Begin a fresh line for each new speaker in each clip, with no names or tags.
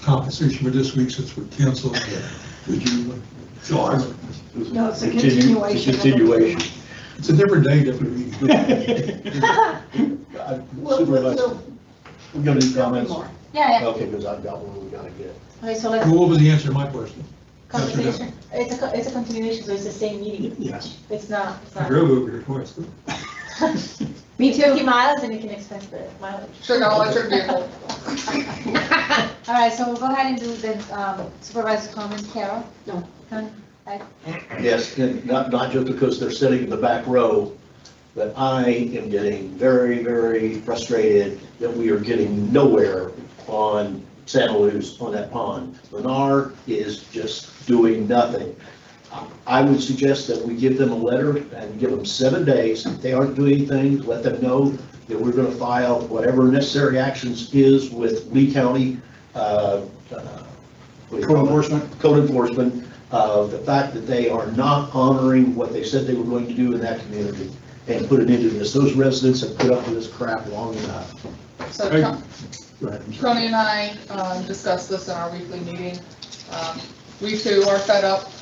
compensation for this week since we're canceled. Would you, uh, John,
No, it's a
Continue-
continuation of the-
Continuation.
it's a different day, different meeting.
I-
We'll- we'll-
Supervisor,
we'll-
we got any
there'll be
comments?
more.
Yeah, yeah.
Okay, because I've got one we gotta get.
Okay, so let's,
Well, What was the answer to my question?
continuation, it's a, co- it's a continuation, so it's the same meeting.
Yes.
It's not, it's
I
not.
drove over here twice.
Me too. 50 miles and you can expense the mileage.
Check out electric vehicle.
All right, so we'll go ahead and do the um, supervisor's comments, Carol?
No.
Con-
Yes, and not, not just because they're sitting in the back row, but I am getting very, very frustrated that we are getting nowhere on Santa Luz, on that pond. Lennar is just doing nothing. I would suggest that we give them a letter and give them seven days. If they aren't doing anything, let them know that we're gonna file whatever necessary actions is with Lee County, uh, uh, what do you call it? code enforcement of the fact that they are not honoring what they said they were going to do in that community and put it into this. Those residents have put up with this crap long enough.
So
Hey.
Tony- Tony and I um, discussed this in our weekly meeting. Um, We too are fed up,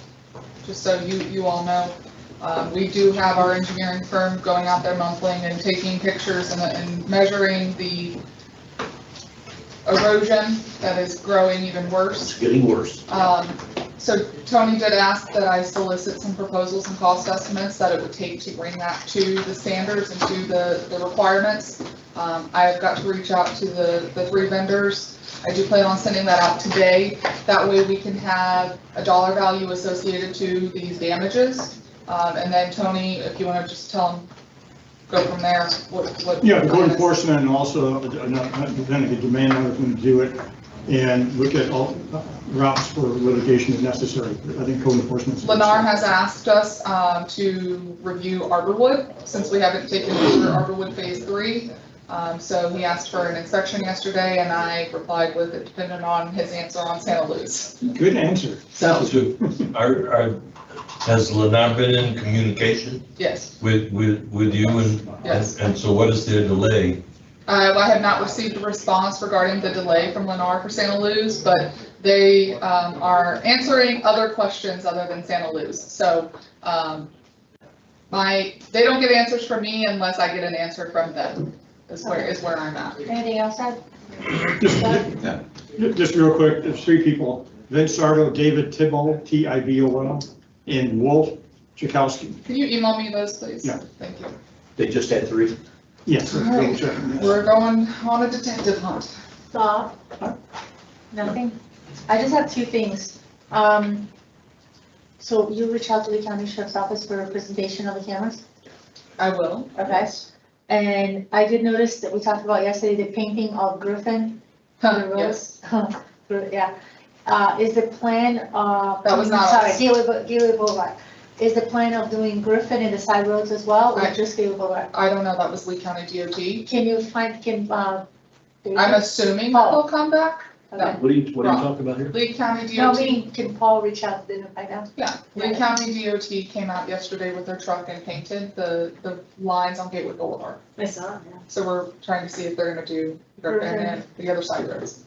just so you, you all know. Um, We do have our engineering firm going out there monthly and taking pictures and- and measuring the erosion that is growing even worse.
It's getting worse.
Um, So Tony did ask that I solicit some proposals and cost estimates that it would take to bring that to the standards and to the, the requirements. Um, I have got to reach out to the, the three vendors. I do plan on sending that out today. That way we can have a dollar value associated to these damages. Um, And then Tony, if you want to just tell him, go from there, what, what.
Yeah, the code enforcement and also, uh, not, not, then if you demand another one to do it, and look at all uh, routes for litigation if necessary. I think code enforcement.
Lennar has asked us um, to review Arborwood, since we haven't taken over Arborwood Phase 3. Um, So he asked for an inspection yesterday, and I replied with it depended on his answer on Santa Luz.
Good answer. That was good.
Are, are, has Lennar been in communication
Yes.
with, with, with you and?
Yes.
And so what is their delay?
Uh, I have not received a response regarding the delay from Lennar for Santa Luz, but they um, are answering other questions other than Santa Luz. So um, my, they don't get answers from me unless I get an answer from them, is where, is where I'm at.
Anything else, Ed?
Just- ju- Just real quick, there's three people, Vince Sardo, David Tibble, T-I-B-O-L, and Wolf Chakowski.
Can you email me those, please?
Yeah.
Thank you.
They just had three.
Yes.
All right.
double check.
We're going on a detective hunt.
Bob? Nothing? I just have two things. Um, So you reach out to the county sheriff's office for a presentation of the cameras,
I will.
okay? And I did notice that we talked about yesterday, the painting of Griffin, on the
Yes.
roads. Yeah. Uh, Is the plan of.
That was not
Sorry,
us.
Gateway Bou- Gateway Boulevard. Is the plan of doing Griffin and the side roads as well, or
Right.
just Gateway Boulevard?
I don't know, that was Lee County
Can you find, can, uh?
DOT. I'm assuming that they'll come back.
Okay.
What are you, what are you talking about here?
Lee County
No,
DOT,
meaning, can Paul reach out to them right now?
yeah, Lee County DOT came out yesterday with their truck and painted the, the lines on Gateway Boulevard.
I saw, yeah.
So we're trying to see if they're gonna do, Griffin and the other side roads.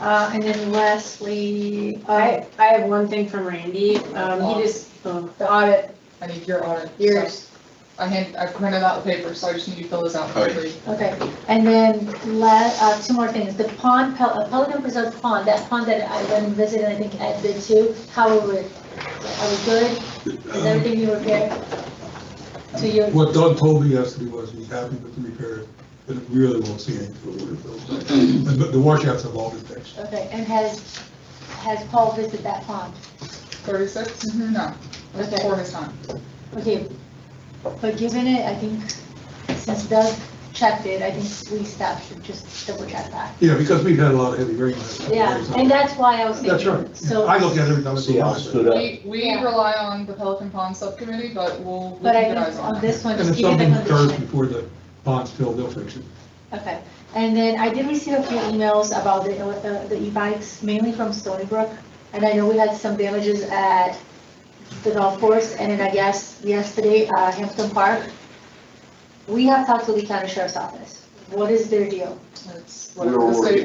Uh, and then lastly, uh,
I, I have one thing from Randy, um, he just, oh, the audit,
I need your audit. so
yours,
I hand, I printed out the paper, so I just need you to fill this out for
Okay.
free.
okay, and then la, uh, two more things, the pond, Pel- uh, Pelican Preserve Pond, that pond that I went and visited, I think Ed did too, how are we? Are we good? Is everything you repaired? To your,
What Doug told me yesterday was he's happy with the repair, but we really won't see any for a little bit. But the washouts have all been fixed.
okay, and has, has Paul visited that pond?
Thirty-six? No, it was
Okay.
before his time.
Okay, but given it, I think, since Doug checked it, I think we staff should just double check that.
Yeah, because we've had a lot of heavy rain. lately.
Yeah, and that's why I was
That's
thinking,
right. Yeah,
so.
I look at it every time. it's
See how I
a
stood up?
We, we
Yeah.
rely on the Pelican Pond Subcommittee, but we'll, we'll
But I
keep an
think
eye
on
on it.
this one,
And if
just given
something
the
occurs
condition.
before the pond's filled, they'll fix it.
Okay, and then I did receive a few emails about the, uh, the e-bikes, mainly from Stony Brook. And I know we had some damages at the golf course, and then I guess yesterday, uh, Hampton Park. We have talked to the county sheriff's office. What is their deal?
It's
We're
whatever the state
working.